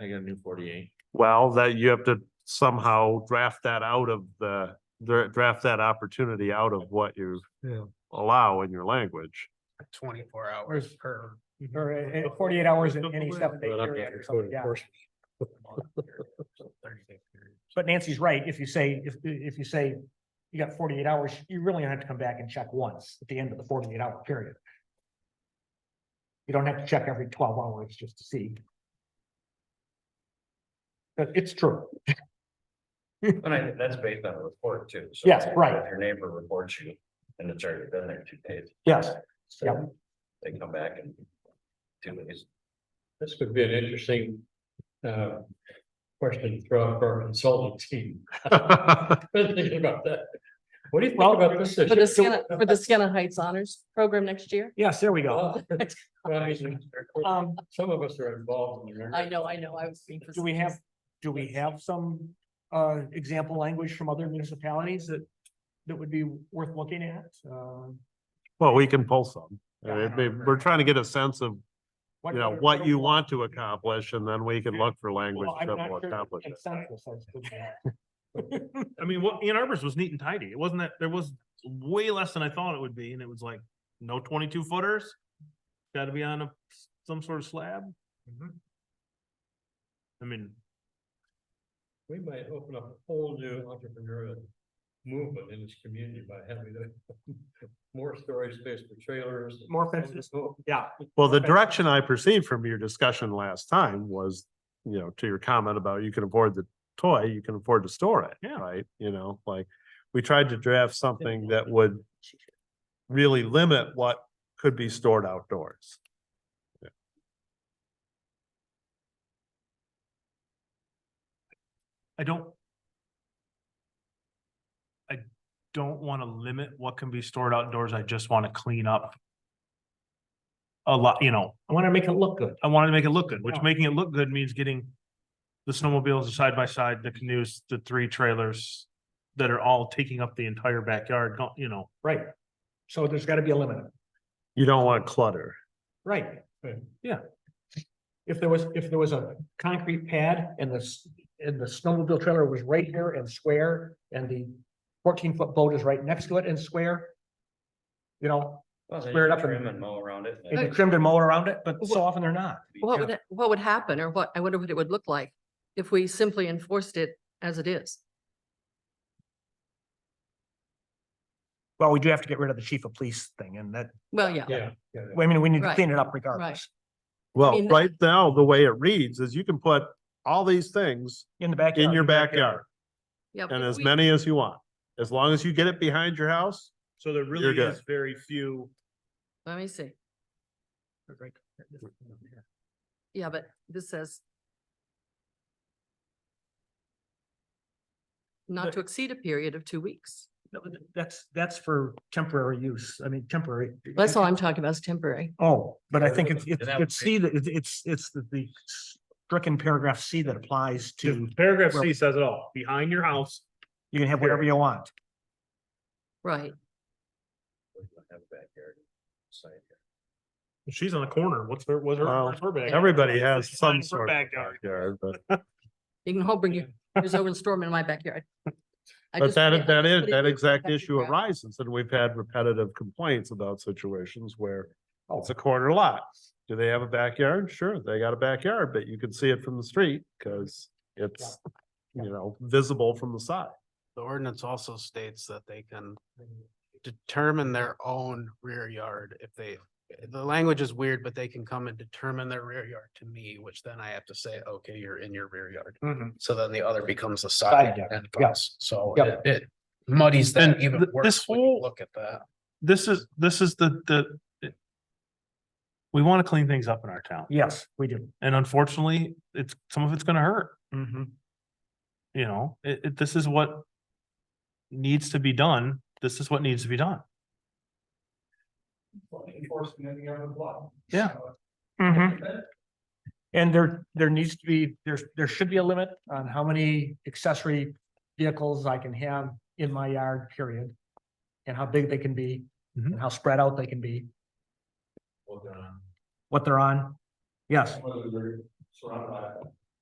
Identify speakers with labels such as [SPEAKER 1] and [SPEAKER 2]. [SPEAKER 1] I got a new forty-eight.
[SPEAKER 2] Well, that you have to somehow draft that out of the, dra- draft that opportunity out of what you
[SPEAKER 3] Yeah.
[SPEAKER 2] allow in your language.
[SPEAKER 4] Twenty-four hours per.
[SPEAKER 3] Or uh, uh, forty-eight hours in any step.
[SPEAKER 1] But I'm not
[SPEAKER 3] period or something, yeah. But Nancy's right, if you say, if, if you say you got forty-eight hours, you really don't have to come back and check once at the end of the forty-eight hour period. You don't have to check every twelve hours just to see. But it's true,
[SPEAKER 5] And I, that's based on a report too. so
[SPEAKER 3] Yes, right.
[SPEAKER 5] if Your neighbor reports you and it's already been there two days.
[SPEAKER 3] yes,
[SPEAKER 5] so
[SPEAKER 3] Yeah.
[SPEAKER 5] They come back in two days.
[SPEAKER 6] This would be an interesting uh question to throw out for our consulting team. Been thinking about that. What do you think
[SPEAKER 3] Well,
[SPEAKER 6] about this?
[SPEAKER 7] For the Sienna, for the Sienna Heights Honors Program next year?
[SPEAKER 3] yes, there we go.
[SPEAKER 6] Well, I mean,
[SPEAKER 3] Um,
[SPEAKER 6] Some of us are involved in there.
[SPEAKER 7] I know, I know, I was. being
[SPEAKER 3] do we have, do we have some uh example language from other municipalities that that would be worth looking at? Uh,
[SPEAKER 2] Well, we can pull some. I
[SPEAKER 4] Yeah, I
[SPEAKER 2] mean,
[SPEAKER 4] don't
[SPEAKER 2] they-
[SPEAKER 4] remember.
[SPEAKER 2] We're trying to get a sense of, you know, what you want to accomplish and then we can look for language
[SPEAKER 3] Well, I'm
[SPEAKER 2] that
[SPEAKER 3] not
[SPEAKER 2] will
[SPEAKER 3] sure
[SPEAKER 2] accomplish it.
[SPEAKER 3] consensus has been there.
[SPEAKER 1] I mean, what, Ann Arbor's was neat and tidy. It wasn't that, there was way less than I thought it would be, and it was like, no twenty-two footers. Gotta be on a, some sort of slab. I mean,
[SPEAKER 6] We might open up a whole new entrepreneurial movement in this community by having the- more storage space for trailers.
[SPEAKER 3] More fences. Yeah,
[SPEAKER 2] Well, the
[SPEAKER 3] Okay.
[SPEAKER 2] direction I perceived from your discussion last time was, you know, to your comment about you can afford the toy, you can afford to store it,
[SPEAKER 1] Yeah.
[SPEAKER 2] right? You know, like, we tried to draft something that would really limit what could be stored outdoors.
[SPEAKER 1] I don't. I don't wanna limit what can be stored outdoors. I just wanna clean up. A lot, you know,
[SPEAKER 3] I want to make it look good.
[SPEAKER 1] I wanted to make it look good, which
[SPEAKER 3] Yeah.
[SPEAKER 1] making it look good means getting. The snowmobiles, the side by side, the canoes, the three trailers that are all taking up the entire backyard, Don't you know,
[SPEAKER 3] Right. So there's got to be a limit,
[SPEAKER 2] You don't want clutter.
[SPEAKER 3] right?
[SPEAKER 6] Right.
[SPEAKER 3] Yeah. If there was, if there was a concrete pad and this, and the snowmobile trailer was right here and square and the fourteen foot boat is right next to it and square. You know,
[SPEAKER 5] Well, they
[SPEAKER 3] Square it up and-
[SPEAKER 5] Trim and mow around it.
[SPEAKER 3] it'd be trimmed and mowed around it, but so often they're not.
[SPEAKER 7] What would, what would happen or what, I wonder what it would look like if we simply enforced it as it is?
[SPEAKER 3] Well, we do have to get rid of the chief of police thing and that,
[SPEAKER 7] Well, yeah,
[SPEAKER 6] Yeah. yeah.
[SPEAKER 3] I mean, we need to
[SPEAKER 7] Right.
[SPEAKER 3] clean it up regardless.
[SPEAKER 2] Well,
[SPEAKER 7] mean,
[SPEAKER 2] right now, the way it reads is you can put all these things
[SPEAKER 3] In the backyard.
[SPEAKER 2] in your backyard
[SPEAKER 7] yeah.
[SPEAKER 2] and
[SPEAKER 7] but
[SPEAKER 2] as
[SPEAKER 7] we-
[SPEAKER 2] many as you want. As long as you get it behind your house,
[SPEAKER 1] so there
[SPEAKER 2] You're
[SPEAKER 1] really
[SPEAKER 2] good.
[SPEAKER 1] is very few.
[SPEAKER 7] Let me see. Yeah, but this says not
[SPEAKER 3] But-
[SPEAKER 7] to exceed a period of two weeks.
[SPEAKER 3] No, th- That's, that's for temporary use. I mean, temporary.
[SPEAKER 7] That's all I'm talking about is temporary.
[SPEAKER 3] Oh, but I think it's,
[SPEAKER 5] Yeah,
[SPEAKER 3] it's,
[SPEAKER 5] that
[SPEAKER 3] it's
[SPEAKER 5] would
[SPEAKER 3] C, that- it's, it's, it's the, the stricken paragraph C that applies to,
[SPEAKER 1] Paragraph
[SPEAKER 3] C
[SPEAKER 1] C says it all, behind your house.
[SPEAKER 3] you can have whatever you want.
[SPEAKER 7] Right.
[SPEAKER 5] Have a backyard site.
[SPEAKER 1] She's on a corner. What's her, what's her,
[SPEAKER 2] Well,
[SPEAKER 1] where's her backyard?
[SPEAKER 2] everybody has some
[SPEAKER 1] Mine's her
[SPEAKER 2] sort of
[SPEAKER 1] backyard.
[SPEAKER 2] backyard, but.
[SPEAKER 7] You can all bring your, there's over and store 'em in my backyard. I
[SPEAKER 2] But
[SPEAKER 7] just
[SPEAKER 2] that,
[SPEAKER 7] put it- I
[SPEAKER 2] that
[SPEAKER 7] just
[SPEAKER 2] is,
[SPEAKER 7] put it
[SPEAKER 2] that
[SPEAKER 7] in
[SPEAKER 2] exact
[SPEAKER 7] protected
[SPEAKER 2] issue
[SPEAKER 7] ground.
[SPEAKER 2] arises, and we've had repetitive complaints about situations where oh, it's a corner lot. Do they have a backyard? Sure, they got a backyard, but you can see it from the street, because it's, you know, visible from the side.
[SPEAKER 8] The ordinance also states that they can determine their own rear yard if they, the language is weird, but they can come and determine their rear yard to me, which then I have to say, okay, you're in your rear yard.
[SPEAKER 2] Mm-hmm.
[SPEAKER 8] So then the other becomes the
[SPEAKER 3] Side
[SPEAKER 8] side
[SPEAKER 3] yard,
[SPEAKER 8] and
[SPEAKER 3] yeah.
[SPEAKER 8] plus, so
[SPEAKER 3] Yeah.
[SPEAKER 8] it it muddies that
[SPEAKER 1] And
[SPEAKER 8] even
[SPEAKER 1] th-
[SPEAKER 8] worse
[SPEAKER 1] this
[SPEAKER 8] when you
[SPEAKER 1] whole-
[SPEAKER 8] look at that.
[SPEAKER 1] This is, this is the, the. it- We wanna clean things up in our town.
[SPEAKER 3] Yes, we do.
[SPEAKER 1] And unfortunately, it's, some of it's gonna hurt.
[SPEAKER 3] Mm-hmm.
[SPEAKER 1] you know, it, it, this is what needs to be done. This is what needs to be done. Yeah.
[SPEAKER 3] Mm-hmm. And there, there needs to be, there's, there should be a limit on how many accessory vehicles I can have in my yard, period. And how big they can be, and how spread out they can be, Mm-hmm. what they're on. Yes,
[SPEAKER 6] Whether they're surrounded by